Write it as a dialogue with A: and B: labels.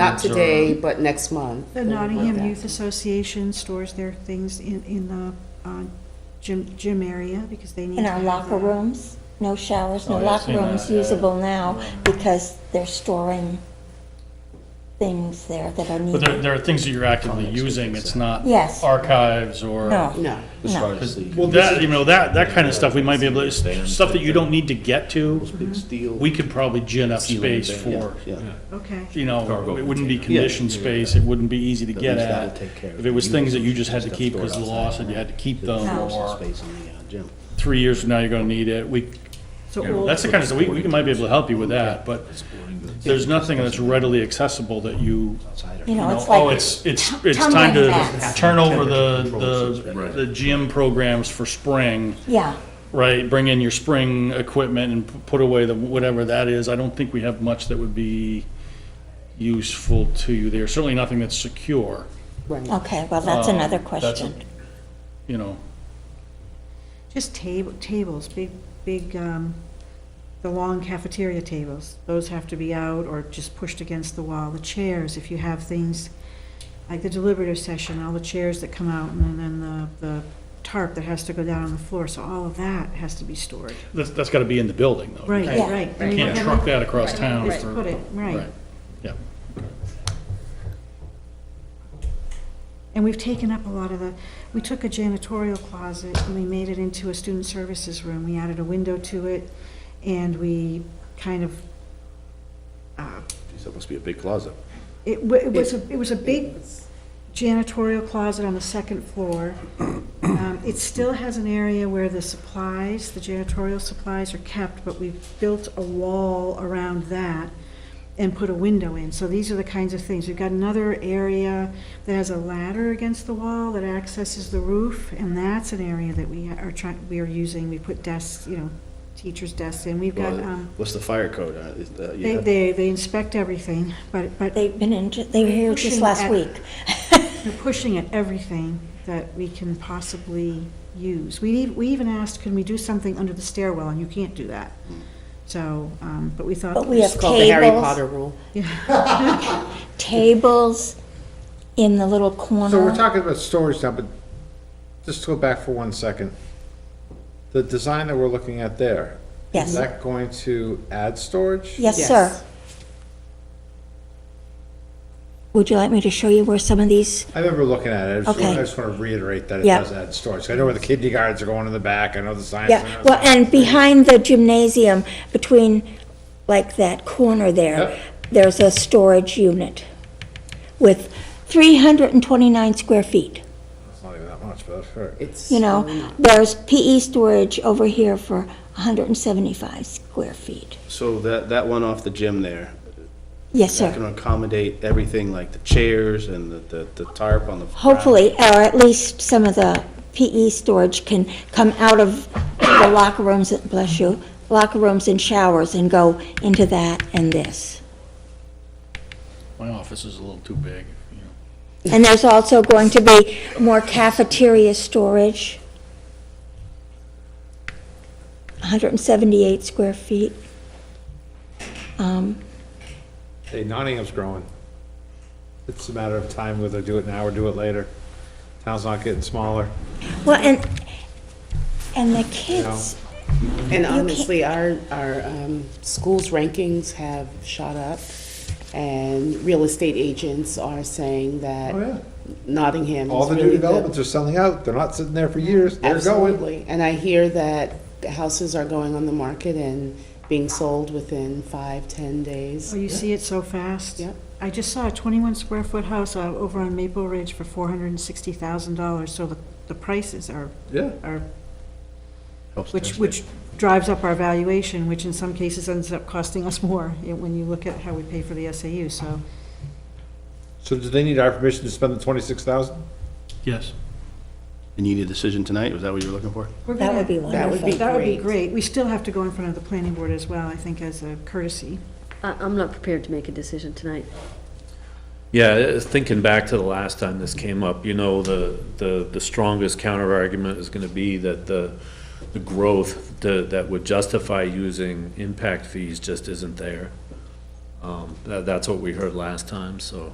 A: not
B: concerns or-
A: today, but next month.
C: The
A: or like
C: Nottingham
A: that.
C: Youth Association stores their things in, in the uh, gym, gym area because they need.
D: In
C: to
D: our
C: have
D: locker
C: that.
D: rooms, no showers, no
B: Oh, yeah, I've
D: locker
B: seen
D: rooms
B: that, yeah.
D: usable now
B: Yeah.
D: because they're storing things there that are
E: But there,
D: needed.
E: there are things that you're actively using, it's not
D: Yes.
E: archives or.
D: No,
A: No.
B: As
D: No.
B: far as the-
E: Well, that, you know, that, that kind of stuff, we might be able, to stuff that you don't need to get to,
B: Those big steel-
E: we could probably gin up
B: ceiling
E: space
B: thing, yeah,
E: for,
B: yeah.
C: Okay,
E: you know,
B: Cargo
E: it wouldn't be
B: container.
E: conditioned
B: Yeah.
E: space, it wouldn't be easy to
B: At
E: get
B: least that'll
E: at.
B: take care of
E: If it was
B: the
E: things that you
B: users
E: just had to
B: that's
E: keep because the
B: stored
E: law
B: outside,
E: said you had to keep
B: There's
E: them,
B: also
E: or
B: Space in the uh, gym.
E: three years from now, you're gonna need it, we,
C: so
E: you know,
C: old-
E: that's the kind of, stuff we, we might be able to help you with that, but there's nothing that's readily accessible that you
B: Outside
D: you
B: or-
D: know,
E: No,
D: it's
E: Oh,
D: like,
E: it's, it's, it's
D: tumbling
E: time to
D: back.
E: turn over the,
B: Temperature
E: the,
B: controls.
E: the gym programs for spring,
D: yeah,
E: right? Bring in your spring equipment and p- put away the, whatever that is. I don't think we have much that would be useful to you there. Certainly nothing that's secure,
A: Right.
D: okay, well, that's another
E: Oh, that's a-
D: question.
E: you know.
C: just table, tables, big, big, um, the long cafeteria tables, those have to be out or just pushed against the wall. The chairs, if you have things, like the deliberative session, all the chairs that come out and then the, the tarp that has to go down on the floor, so all of that has to be stored.
E: That's, that's gotta be in the building though. You
C: Right,
E: can't-
D: Yeah.
C: right.
E: You can't truck that across town.
C: Just
E: for-
C: put it, right.
E: Yeah.
C: And we've taken up a lot of the, we took a janitorial closet and we made it into a student services room. We added a window to it and we kind of, uh,
F: Geez, that must be a big closet.
C: it wa- it was, a it was a big janitorial closet on the second floor. Um, It still has an area where the supplies, the janitorial supplies are kept, but we've built a wall around that and put a window in. So these are the kinds of things. We've got another area that has a ladder against the wall that accesses the roof, and that's an area that we are trying, we are using. We put desks, you know, teachers' desks in. We've got,
F: Well,
C: um,
F: What's the fire code? Uh, is that- you
C: they,
F: have-
C: they they inspect everything, but, but
D: They've been in, ju- they were here
C: Pushing
D: just last
C: at-
D: week.
C: They're pushing at everything that we can possibly use. We, ev- we even asked, can we do something under the stairwell, and you can't do that. So, um, but we thought.
D: But we have
A: It's called the Harry
D: Tables.
A: Potter rule.
D: Tables in the little corner.
G: So we're talking about storage now, but just go back for one second. The design that we're looking at there,
D: Yes,
G: is that going to add storage?
D: yes, sir. Would you like me to show you where some of these,
G: I remember looking at it, I just-
D: Okay.
G: I just want to reiterate that it
D: Yeah.
G: does add storage. I know where the kindergartens are going in the back, I know the science.
D: yeah,
G: center's
D: well,
G: going-
D: and behind the gymnasium, between, like that corner
G: Yep.
D: there, there's a storage unit with 329 square feet.
G: It's not even that much, but that's all right.
A: It's.
D: You know, there's PE storage over here for 175 square feet.
F: So that, that one off the gym there,
D: Yes,
F: that
D: sir.
F: can accommodate everything like the chairs and the, the the tarp on the. ground.
D: Hopefully, or at least some of the PE storage can come out of the locker rooms, bless you, locker rooms and showers and go into that and this.
E: My office is a little too big, you know.
D: And there's also going to be more cafeteria storage. 178 square feet. Um,
G: Hey, Nottingham's growing. It's a matter of time whether do it now or do it later. Town's not getting smaller.
D: Well, and, and the kids,
A: And honestly, our, our um, schools' rankings have shot up, and real estate agents are saying that
G: Oh, yeah.
A: Nottingham is really
G: All the new developments are selling out, they're not sitting there for years, they're going.
A: Absolutely, and I hear that houses are going on the market and being sold within five, ten days.
C: Oh, you see it so fast?
A: Yep.
C: I just saw a twenty-one square foot house out over on Maple Ridge for four hundred and sixty thousand dollars, so the, the prices are,
G: Yeah.
C: are,
F: Helps
C: which,
F: density.
C: which drives up our valuation, which in some cases ends up costing us more, eh, when you look at how we pay for the SAU, so.
G: So do they need our permission to spend the twenty-six thousand?
E: Yes.
F: And you need a decision tonight? Was that what you were looking for?
C: we're
D: that
C: gonna-
D: would be
A: That would
D: wonderful.
A: be
C: That would be
A: great.
C: great. We still have to go in front of the planning board as well, I think, as a courtesy.
H: I- I'm not prepared to make a decision tonight.
B: Yeah, uh, thinking back to the last time this came up, you know, the, the, the strongest counterargument is gonna be that the, the growth tha- that would justify using impact fees just isn't there. Um, That, that's what we heard last time, so.